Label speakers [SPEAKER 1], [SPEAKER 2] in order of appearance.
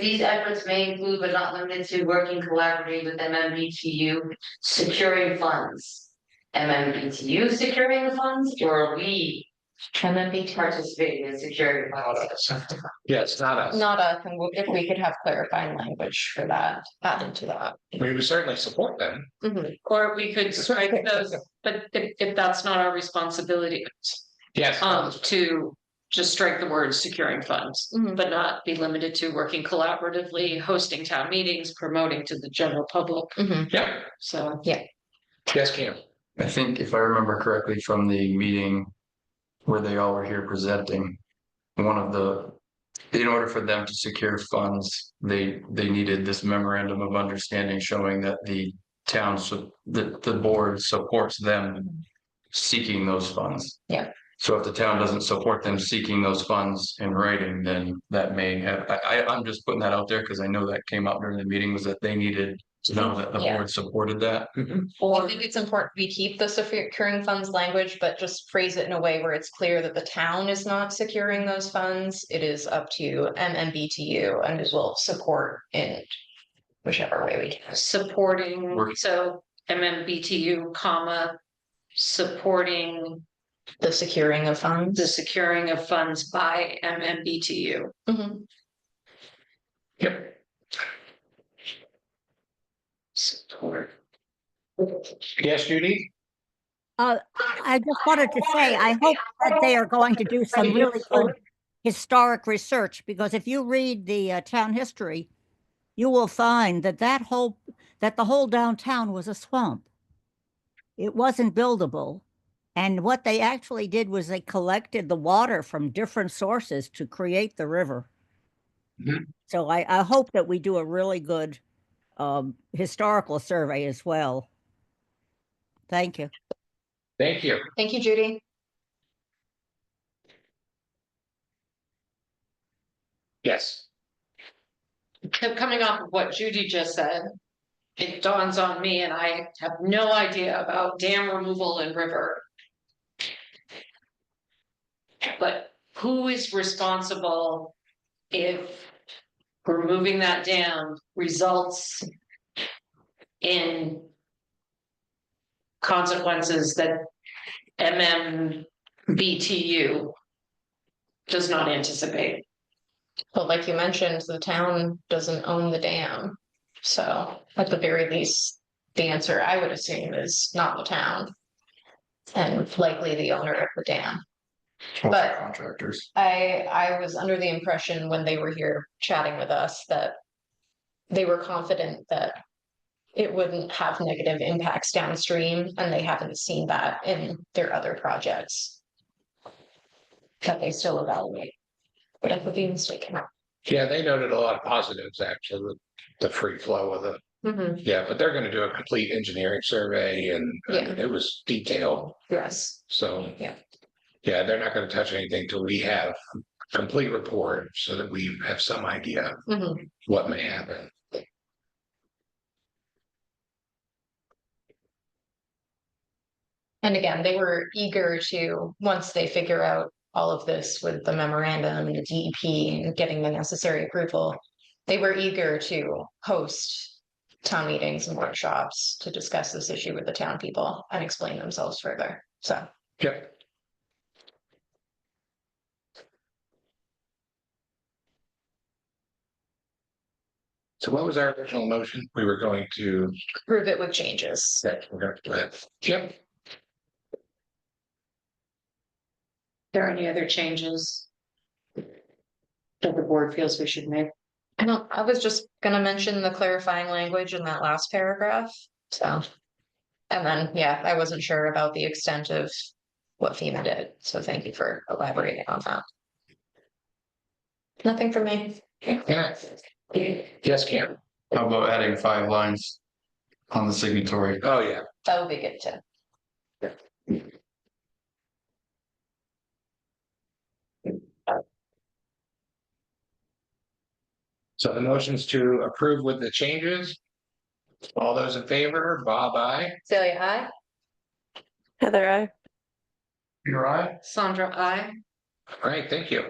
[SPEAKER 1] These efforts may include but not limited to working collaboratively with MMBTU securing funds. MMBTU securing the funds or are we participating in securing funds?
[SPEAKER 2] Yeah, it's not us.
[SPEAKER 3] Not us, and we'll- if we could have clarifying language for that, added to that.
[SPEAKER 2] We would certainly support them.
[SPEAKER 3] Mhm.
[SPEAKER 4] Or we could strike those, but if, if that's not our responsibility,
[SPEAKER 2] Yes.
[SPEAKER 4] um, to just strike the word securing funds.
[SPEAKER 3] Mhm.
[SPEAKER 4] But not be limited to working collaboratively, hosting town meetings, promoting to the general public,
[SPEAKER 3] Mhm.
[SPEAKER 2] Yep,
[SPEAKER 4] so.
[SPEAKER 2] yes, Cam.
[SPEAKER 5] I think if I remember correctly from the meeting where they all were here presenting, one of the, in order for them to secure funds, they, they needed this memorandum of understanding showing that the town, su- the, the board supports them seeking those funds.
[SPEAKER 3] Yeah.
[SPEAKER 5] So if the town doesn't support them seeking those funds in writing, then that may have, I, I, I'm just putting that out there because I know that came up during the meeting was that they needed to know that the
[SPEAKER 3] Yeah.
[SPEAKER 5] board supported that.
[SPEAKER 3] I think it's important we keep the securing funds language, but just phrase it in a way where it's clear that the town is not securing those funds. It is up to MMBTU and as well support in whichever way we can.
[SPEAKER 4] Supporting,
[SPEAKER 5] Work-
[SPEAKER 4] so MMBTU comma, supporting
[SPEAKER 3] The securing of
[SPEAKER 4] the
[SPEAKER 3] funds.
[SPEAKER 4] securing of funds by MMBTU.
[SPEAKER 3] Mhm.
[SPEAKER 2] Yep.
[SPEAKER 4] Support.
[SPEAKER 2] Yes, Judy?
[SPEAKER 6] Uh, I just wanted to say, I hope that they are going to do some really good historic research, because if you read the uh, town history, you will find that that whole, that the whole downtown was a swamp. It wasn't buildable. And what they actually did was they collected the water from different sources to create the river.
[SPEAKER 2] Mhm.
[SPEAKER 6] So I, I hope that we do a really good, um, historical survey as well. Thank you.
[SPEAKER 2] Thank you.
[SPEAKER 3] Thank you, Judy.
[SPEAKER 2] Yes.
[SPEAKER 4] co- coming off of what Judy just said, it dawns on me and I have no idea about dam removal and river. But who is responsible if removing that dam results in consequences that MMBTU does not anticipate?
[SPEAKER 3] But like you mentioned, the town doesn't own the dam. So at the very least, the answer I would assume is not the town. And likely the owner of the dam. But-
[SPEAKER 5] Contractors.
[SPEAKER 3] I, I was under the impression when they were here chatting with us that they were confident that it wouldn't have negative impacts downstream, and they haven't seen that in their other projects that they still evaluate. But I could be mistaken.
[SPEAKER 2] Yeah, they noted a lot of positives, actually, the the free flow of the, yeah, but they're gonna do a complete engineering survey and I mean, it was detailed,
[SPEAKER 3] Yes.
[SPEAKER 2] so.
[SPEAKER 3] Yeah.
[SPEAKER 2] Yeah, they're not gonna touch anything till we have a complete report so that we have some idea
[SPEAKER 3] Mhm.
[SPEAKER 2] what may happen.
[SPEAKER 3] And again, they were eager to, once they figure out all of this with the memorandum and the DEP and getting the necessary approval, they were eager to host town meetings and workshops to discuss this issue with the town people and explain themselves further. So
[SPEAKER 2] Yep. So what was our original motion? We were going to,
[SPEAKER 3] prove it with changes.
[SPEAKER 2] we're gonna, go ahead. yep,
[SPEAKER 4] there any other changes? That the board feels we should make?
[SPEAKER 3] I don't, I was just gonna mention the clarifying language in that last paragraph, so. And then, yeah, I wasn't sure about the extent of what FEMA did, so thank you for elaborating on that. Nothing for me.
[SPEAKER 2] Yeah. yes, Cam.
[SPEAKER 5] How about adding five lines on the signatory?
[SPEAKER 2] Oh, yeah.
[SPEAKER 3] That would be good too.
[SPEAKER 2] So the motion's to approve with the changes. All those in favor, Bob, I.
[SPEAKER 3] Celia, hi.
[SPEAKER 7] Heather, I.
[SPEAKER 5] Peter, I?
[SPEAKER 4] Sandra, I.
[SPEAKER 2] All right, thank you.